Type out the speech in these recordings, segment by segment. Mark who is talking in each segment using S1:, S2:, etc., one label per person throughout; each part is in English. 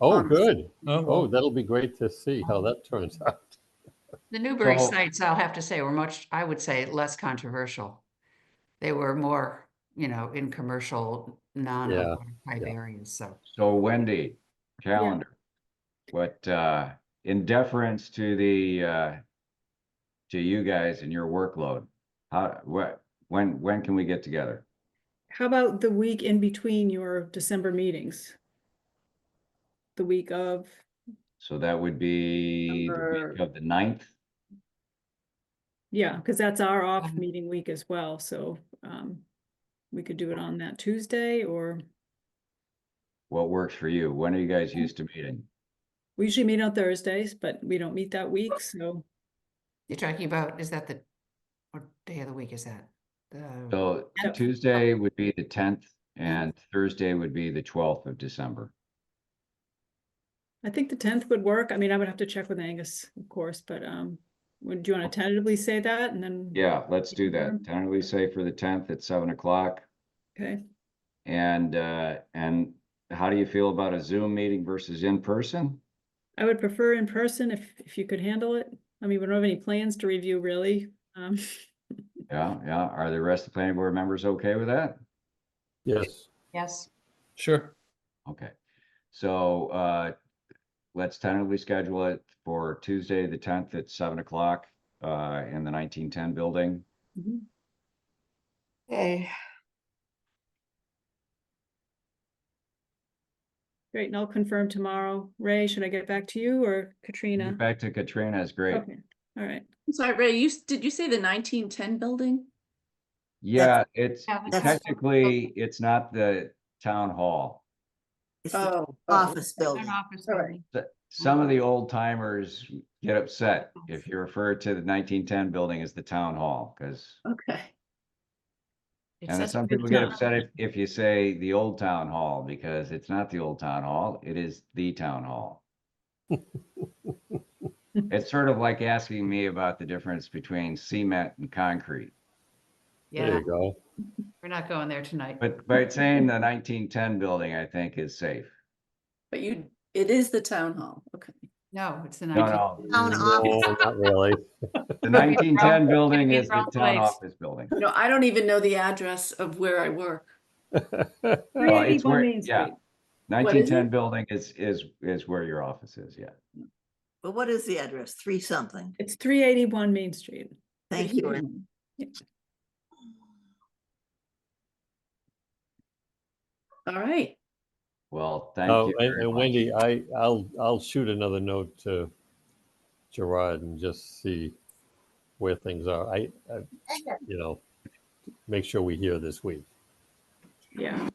S1: Oh,
S2: Um,
S1: good.
S3: Oh,
S1: Oh,
S3: well,
S1: that'll be great to see how that turns out.
S2: The Newbury
S3: So-
S2: sites, I'll have to say, were much, I would say, less controversial. They were more, you know, in commercial, non-type
S1: yeah.
S2: areas, so.
S4: So Wendy, calendar. What, uh, in deference to the, uh, to you guys and your workload, how, what, when, when can we get together?
S5: How about the week in between your December meetings? The week of,
S4: So that would be the week
S5: Number-
S4: of the ninth,
S5: yeah, because that's our off
S2: Um,
S5: meeting week as well, so um, we could do it on that Tuesday, or
S4: what works for you? When are you guys used to meeting?
S5: we usually meet on Thursdays, but we don't meet that week, so
S2: You're talking about, is that the, what day of the week is that? The,
S4: So
S5: Yep.
S4: Tuesday would be the tenth and Thursday would be the twelfth of December.
S5: I think the tenth would work. I mean, I would have to check with Angus, of course, but um, would, do you want to tentatively say that and then?
S4: Yeah, let's do that.
S5: Mhm.
S4: Tentatively say for the tenth at seven o'clock.
S5: Okay,
S4: And, uh, and how do you feel about a Zoom meeting versus in person?
S5: I would prefer in person if, if you could handle it. I mean, we don't have any plans to review really. Um,
S4: Yeah, yeah. Are the rest of the planning board members okay with that?
S1: Yes.
S2: yes,
S3: sure.
S4: Okay. So, uh, let's tentatively schedule it for Tuesday, the tenth at seven o'clock, uh, in the nineteen ten building.
S5: mhm.
S6: Okay,
S5: Great, and I'll confirm tomorrow. Ray, should I get back to you or Katrina?
S4: Back to Katrina is great.
S5: Okay, all right.
S6: I'm sorry, Ray, you, s- did you say the nineteen ten building?
S4: Yeah, it's
S2: Yeah, that's-
S4: technically, it's not the town hall.
S7: It's the
S6: Oh.
S7: office
S2: an
S7: building.
S2: office
S6: All right.
S2: building.
S4: Th- Some of the old timers get upset if you refer to the nineteen ten building as the town hall, because
S6: Okay,
S4: And then
S2: Accessible
S4: some people
S2: to
S4: get
S2: non-
S4: upset if, if you say the old town hall, because it's not the old town hall, it is the town hall. It's sort of like asking me about the difference between cement and concrete,
S1: There
S2: Yeah,
S1: you go.
S2: we're not going there tonight.
S4: but by saying the nineteen ten building, I think is safe.
S6: but you, it is the town hall, okay.
S2: No, it's the
S4: No,
S2: 19th.
S4: no.
S7: Town
S1: No,
S7: office.
S1: not really.
S4: The nineteen ten building
S2: Be
S4: is the
S2: wrong
S4: town
S2: place.
S4: office building.
S6: No, I don't even know the address of where I work.
S4: Well,
S5: 380
S4: Uh, it's
S5: Bull
S4: where-
S5: Main
S4: Oh, yeah.
S6: What is
S5: Street.
S6: it?
S4: Nineteen ten building is, is, is where your office is, yeah.
S7: But what is the address? Three something.
S5: It's three eighty-one Main Street.
S7: Thank you. Ann.
S6: All right,
S4: Well, thank
S1: Oh,
S4: you.
S1: and-
S4: very
S1: and
S4: much.
S1: Wendy, I, I'll, I'll shoot another note to Gerard and just see where things are. I, I, you know, make sure we hear this week.
S5: Yeah,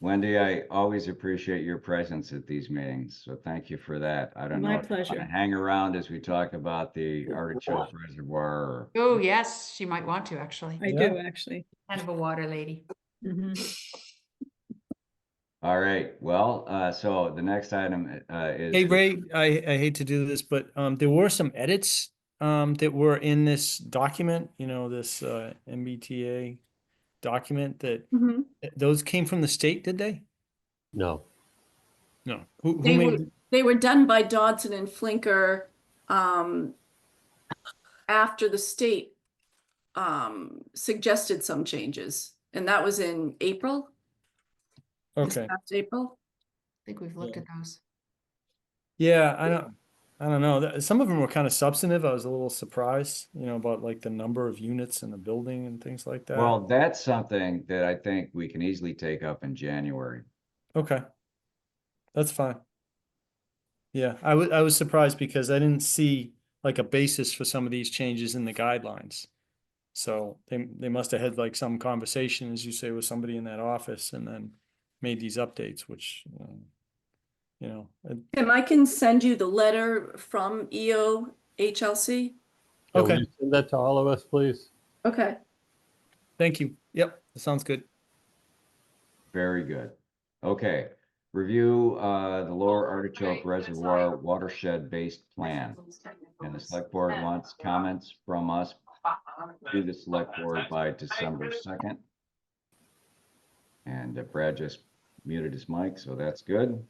S4: Wendy, I always appreciate your presence at these meetings, so thank you for that. I don't know.
S5: My
S4: if you wanna
S5: pleasure.
S4: Hang around as we talk about the artichoke reservoir. or-
S2: Oh, yes, she might want to, actually.
S5: I
S1: Yeah.
S5: do actually.
S2: Kind of a water lady.
S5: Mhm.
S4: All right, well, uh, so the next item, uh, is.
S3: Hey, Ray, I, I hate to do this, but, um, there were some edits, um, that were in this document, you know, this, uh, MBTA document that,
S6: Mhm.
S3: th- those came from the state, did they?
S1: No,
S3: No. Who, who
S6: They
S3: made,
S6: were-
S3: th-
S6: they were done by Dodson and Flinker, um, after the state, um, suggested some changes, and that was in April, this
S3: okay.
S6: past April.
S2: I think we've looked
S3: Yeah.
S2: at those.
S3: Yeah, I don't, I don't know. That- Some of them were kind of substantive. I was a little surprised, you know, about like the number of units in the building and things like that.
S4: Well, that's something that I think we can easily take up in January.
S3: Okay. That's fine. Yeah, I was I was surprised because I didn't see like a basis for some of these changes in the guidelines. So they they must have had like some conversation, as you say, with somebody in that office and then made these updates, which um, you know, uh,
S6: Tim, I can send you the letter from E EO HLC.
S1: Yeah, will
S3: Okay.
S1: you Send that to all of us, please.
S6: Okay.
S3: thank you. Yep, that sounds good.
S4: Very good. Okay, review, uh, the Lower Artichoke
S2: Alright, that's all.
S4: Reservoir Watershed-Based Plan. And the select board wants comments from us to the select board by December second. And uh, Brad just muted his mic, so that's good.